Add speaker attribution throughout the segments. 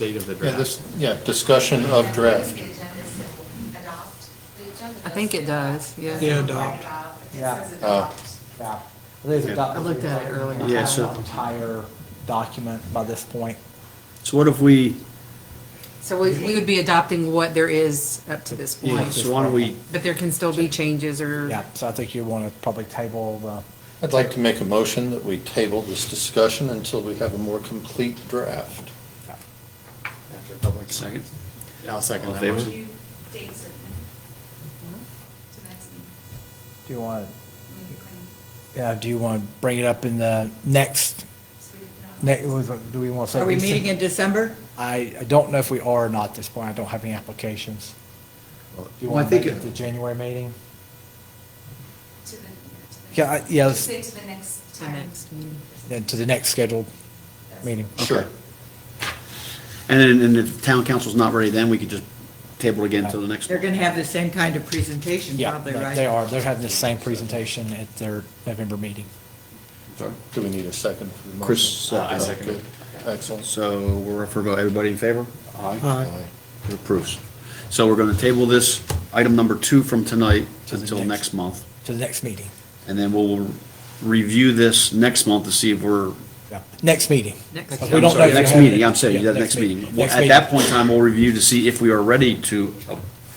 Speaker 1: state of the
Speaker 2: Yeah,
Speaker 1: draft.
Speaker 2: this, yeah, discussion of draft.
Speaker 3: I think it does, yeah.
Speaker 4: Yeah, adopt.
Speaker 5: Yeah.
Speaker 2: Uh,
Speaker 5: Yeah. I
Speaker 3: I looked at it earlier.
Speaker 5: Yeah,
Speaker 4: Yeah,
Speaker 5: so.
Speaker 4: so-
Speaker 5: Entire document by this point.
Speaker 4: So what if we,
Speaker 3: So we, we would be adopting what there is up to this
Speaker 4: yeah,
Speaker 3: point,
Speaker 4: so why don't we,
Speaker 3: but there can still be changes or.
Speaker 6: Mm-hmm.
Speaker 5: Yeah, so I think you want to probably table the,
Speaker 2: I'd like to make a motion that we table this discussion until we have a more complete draft.
Speaker 1: After public-
Speaker 4: second,
Speaker 1: I'll second
Speaker 4: All in
Speaker 1: that
Speaker 4: favor?
Speaker 1: motion.
Speaker 5: do you want, yeah, do you want to bring it up in the next, next, do we want to say?
Speaker 6: Are we meeting in December?
Speaker 5: I, I don't know if we are or not at this point. I don't have any applications. Do you
Speaker 4: Well, I
Speaker 5: want to make
Speaker 4: think
Speaker 5: it
Speaker 4: it-
Speaker 5: the January meeting? Yeah, I- yeah, let's-
Speaker 7: Say to the next
Speaker 3: The
Speaker 7: time.
Speaker 3: next meeting.
Speaker 5: Then to the next scheduled meeting.
Speaker 6: Oh,
Speaker 2: Sure.
Speaker 4: and then, and if the town council's not ready, then we could just table it again until the next
Speaker 6: They're
Speaker 4: one.
Speaker 6: gonna have the same kind of presentation
Speaker 5: Yeah,
Speaker 6: probably, right?
Speaker 5: they are. They're having the same presentation at their November meeting.
Speaker 4: Sorry.
Speaker 2: Do we need a second? for the motion?
Speaker 4: Chris, uh, I second it.
Speaker 2: Good. Excellent.
Speaker 4: So we're up for a vote. Everybody in favor?
Speaker 2: Aye.
Speaker 4: It approves. So we're going to table this item number two from tonight
Speaker 5: To the
Speaker 4: until
Speaker 5: next-
Speaker 4: next month.
Speaker 5: To the next meeting.
Speaker 4: And then we'll review this next month to see if we're,
Speaker 5: Yeah. Next meeting.
Speaker 3: Next
Speaker 5: But we
Speaker 4: I'm
Speaker 5: don't know
Speaker 4: sorry,
Speaker 5: if
Speaker 4: next
Speaker 5: they're having
Speaker 4: meeting,
Speaker 5: it.
Speaker 4: I'm saying,
Speaker 5: Yeah,
Speaker 4: yeah, next meeting. Well,
Speaker 5: Next
Speaker 4: At
Speaker 5: meeting.
Speaker 4: that point in time, we'll review to see if we are ready to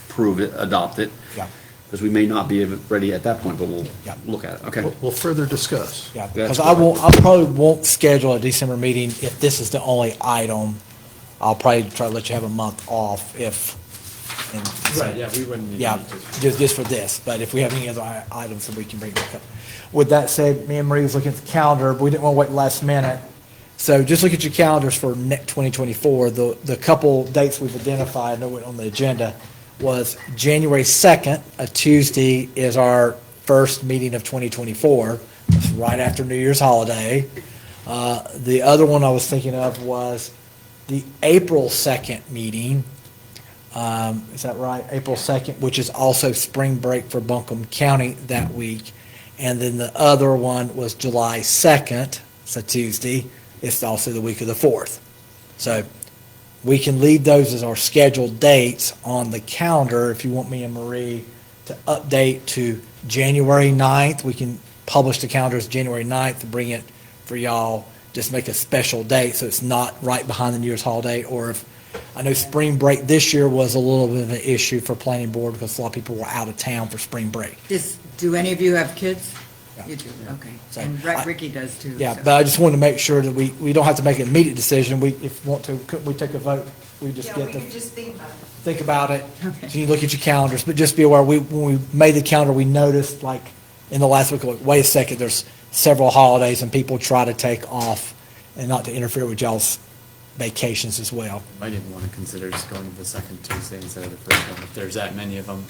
Speaker 4: approve it, adopt it.
Speaker 5: Yeah.
Speaker 4: Because we may not be ready at that point, but we'll
Speaker 5: Yeah.
Speaker 4: look at it, okay?
Speaker 8: We'll further discuss.
Speaker 5: Yeah,
Speaker 4: That's
Speaker 5: because I won't, I probably won't schedule a December meeting if this is the only item. I'll probably try to let you have a month off if. and so-
Speaker 1: Right, yeah, we wouldn't need
Speaker 5: Yeah,
Speaker 1: to-
Speaker 5: just, just for this, but if we have any other i- items that we can bring back up. With that said, me and Marie was looking at the calendar, but we didn't want to wait last minute. So just look at your calendars for next 2024. The, the couple dates we've identified, that went on the agenda, was January 2nd, a Tuesday, is our first meeting of 2024. It's right after New Year's holiday. Uh, The other one I was thinking of was the April 2nd meeting. Um, Is that right? April 2nd, which is also spring break for Buncombe County that week. And then the other one was July 2nd, it's a Tuesday. It's also the week of the 4th. So we can leave those as our scheduled dates on the calendar if you want me and Marie to update to January 9th. We can publish the calendar as January 9th, bring it for y'all, just make a special date so it's not right behind the New Year's holiday. Or if, I know spring break this year was a little bit of an issue for planning board because a lot of people were out of town for spring break.
Speaker 6: Does, do any of you have kids?
Speaker 5: Yeah.
Speaker 6: You do, okay.
Speaker 5: So,
Speaker 6: And
Speaker 5: I-
Speaker 6: Rick- Ricky does too.
Speaker 5: Yeah,
Speaker 6: so.
Speaker 5: but I just wanted to make sure that we, we don't have to make an immediate decision. We, if we want to, could we take a vote? We just
Speaker 7: Yeah,
Speaker 5: get
Speaker 7: we
Speaker 5: the.
Speaker 7: could just think about it.
Speaker 5: think about it.
Speaker 6: Okay.
Speaker 5: So you look at your calendars, but just be aware, we, when we made the calendar, we noticed like in the last week, like, wait a second, there's several holidays and people try to take off and not to interfere with y'all's vacations as well.
Speaker 1: Might even want to consider just going to the second Tuesday instead of the first one, if there's that many of them.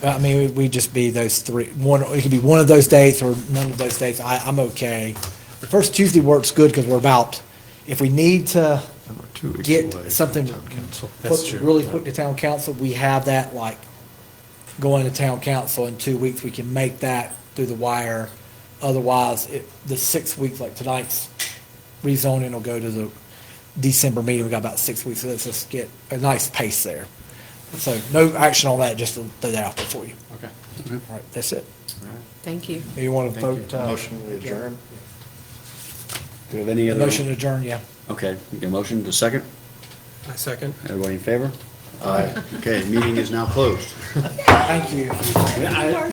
Speaker 5: But, I mean, we just be those three, one, it could be one of those dates or none of those dates. I, I'm okay. The first Tuesday works good because we're about, if we need to
Speaker 8: Number two weeks away
Speaker 5: get
Speaker 8: from
Speaker 5: something
Speaker 8: town council.
Speaker 1: That's
Speaker 5: put-
Speaker 1: true.
Speaker 5: really quick to town council, we have that like going to town council in two weeks. We can make that through the wire. Otherwise, it, the six weeks, like tonight's rezoning will go to the December meeting. We got about six weeks. So let's just get a nice pace there. So no action on that, just to throw that out there for you.
Speaker 1: Okay.
Speaker 2: Mm-hmm.
Speaker 5: All right, that's it.
Speaker 3: Thank you.
Speaker 5: You want to
Speaker 1: Thank you.
Speaker 5: vote, uh,
Speaker 2: Motion we adjourn?
Speaker 4: Do we have any other?
Speaker 5: motion to adjourn, yeah.
Speaker 4: Okay, we get a motion, to second?
Speaker 1: I second.
Speaker 4: Everybody in favor?
Speaker 2: Aye.
Speaker 4: Okay, meeting is now closed.
Speaker 5: Thank you.